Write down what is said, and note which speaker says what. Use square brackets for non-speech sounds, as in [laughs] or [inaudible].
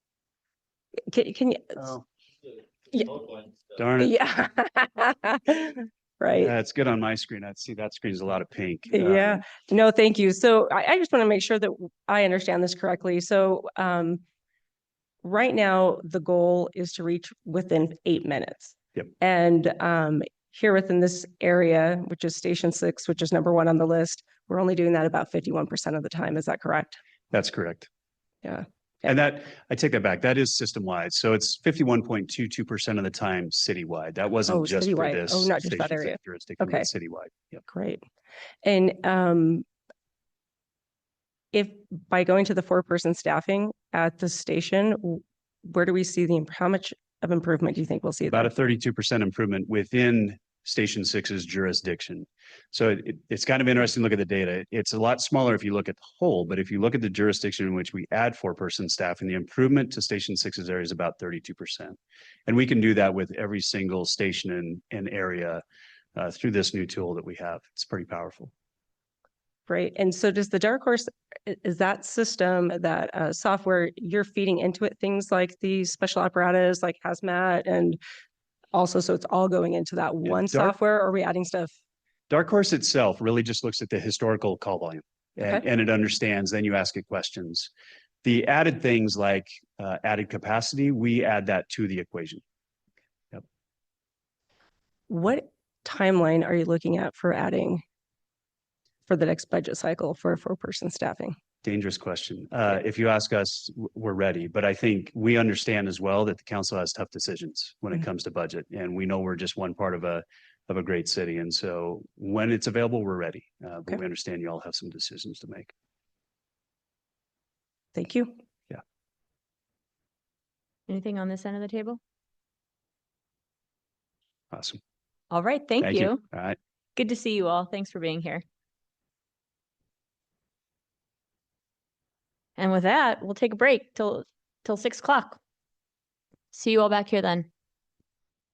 Speaker 1: Can, can you?
Speaker 2: Oh,
Speaker 1: Yeah.
Speaker 3: Darn it.
Speaker 1: Yeah. [laughs] Right.
Speaker 3: Yeah, it's good on my screen. I see that screen's a lot of pink. Uh,
Speaker 1: Yeah. No, thank you. So I, I just want to make sure that I understand this correctly. So, um, right now, the goal is to reach within eight minutes.
Speaker 3: Yep.
Speaker 1: And, um, here within this area, which is station six, which is number one on the list, we're only doing that about fifty-one percent of the time. Is that correct?
Speaker 3: That's correct.
Speaker 1: Yeah.
Speaker 3: And that, I take that back. That is system wide. So it's fifty-one point two-two percent of the time citywide. That
Speaker 1: Oh,
Speaker 3: wasn't just for
Speaker 1: citywide.
Speaker 3: this.
Speaker 1: Oh, not just that
Speaker 3: station, it's
Speaker 1: area.
Speaker 3: Jurisdiction, but
Speaker 1: Okay.
Speaker 3: citywide. Yep.
Speaker 1: Great. And um if by going to the four-person staffing at the station, w- where do we see the, imp- how much of improvement do you think we'll see?
Speaker 3: About a
Speaker 1: there?
Speaker 3: thirty-two percent improvement within Station Six's jurisdiction. So it, it- it's kind of interesting to look at the data. It's a lot smaller if you look at the whole, but if you look at the jurisdiction in which we add four-person staff and the improvement to Station Six's area is about thirty-two percent. And we can do that with every single station and, and area uh, through this new tool that we have. It's pretty powerful.
Speaker 1: Great. And so does the dark horse, i- is that system, that uh software, you're feeding into it things like the special apparatus, like hazmat and also, so it's all going into that
Speaker 3: Yeah,
Speaker 1: one
Speaker 3: Dark-
Speaker 1: software or are we adding stuff?
Speaker 3: Dark Horse itself really just looks at the historical call volume and,
Speaker 1: Okay.
Speaker 3: and it understands, then you ask it questions. The added things like uh, added capacity, we add that to the equation.
Speaker 1: What timeline are you looking at for adding for the next budget cycle for four-person staffing?
Speaker 3: Dangerous question. Uh, if you ask us, w- we're ready, but I think we understand as well that the council has tough decisions when it
Speaker 1: Mhm.
Speaker 3: comes to budget. And we know we're just one part of a, of a great city. And so when it's available, we're ready. Uh,
Speaker 1: Okay.
Speaker 3: but we understand you all have some decisions to make.
Speaker 1: Thank you.
Speaker 4: Anything on this end of the table?
Speaker 3: Awesome.
Speaker 4: All right, thank you.
Speaker 3: All right.
Speaker 4: Good to see you all. Thanks for being here. And with that, we'll take a break till, till six o'clock. See you all back here then.